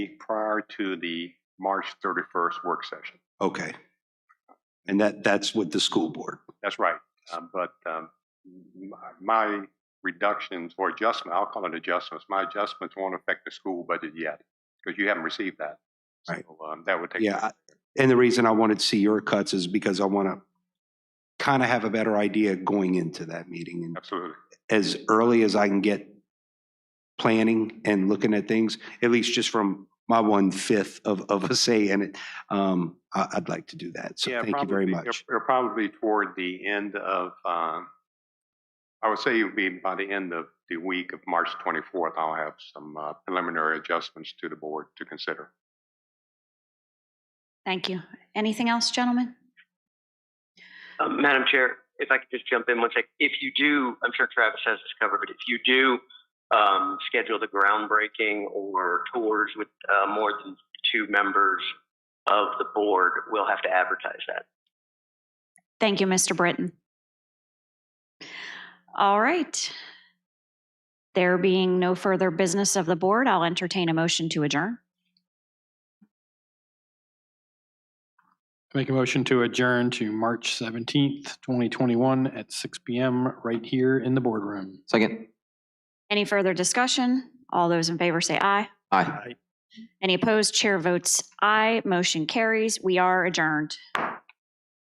prior to the March 31st work session. Okay. And that, that's with the school board. That's right. Um, But um, m- my reductions or adjustment, I'll call it adjustments, my adjustments won't affect the school budget yet because you haven't received that. Right. So um, that would take. Yeah. I- And the reason I wanted to see your cuts is because I want to kind of have a better idea going into that meeting. And Absolutely. as early as I can get planning and looking at things, at least just from my one-fifth of, of a say in it, um, I, I'd like to do that. So Yeah, thank you very probably- much. It'll it'll probably be toward the end of, um, I would say it would be by the end of the week of March 24th, I'll have some uh, preliminary adjustments to the board to consider. Thank you. Anything else, gentlemen? Um, Madam Chair, if I could just jump in one sec. If you do, I'm sure Travis has this covered, but if you do um, schedule the groundbreaking or tours with uh, more than two members of the board, we'll have to advertise that. Thank you, Mr. Britton. All right. There being no further business of the board, I'll entertain a motion to adjourn. Make a motion to adjourn to March 17th, 2021 at 6 PM right here in the boardroom. Second. Any further discussion? All those in favor say aye. Aye. Any opposed? Chair votes aye. Motion carries. We are adjourned.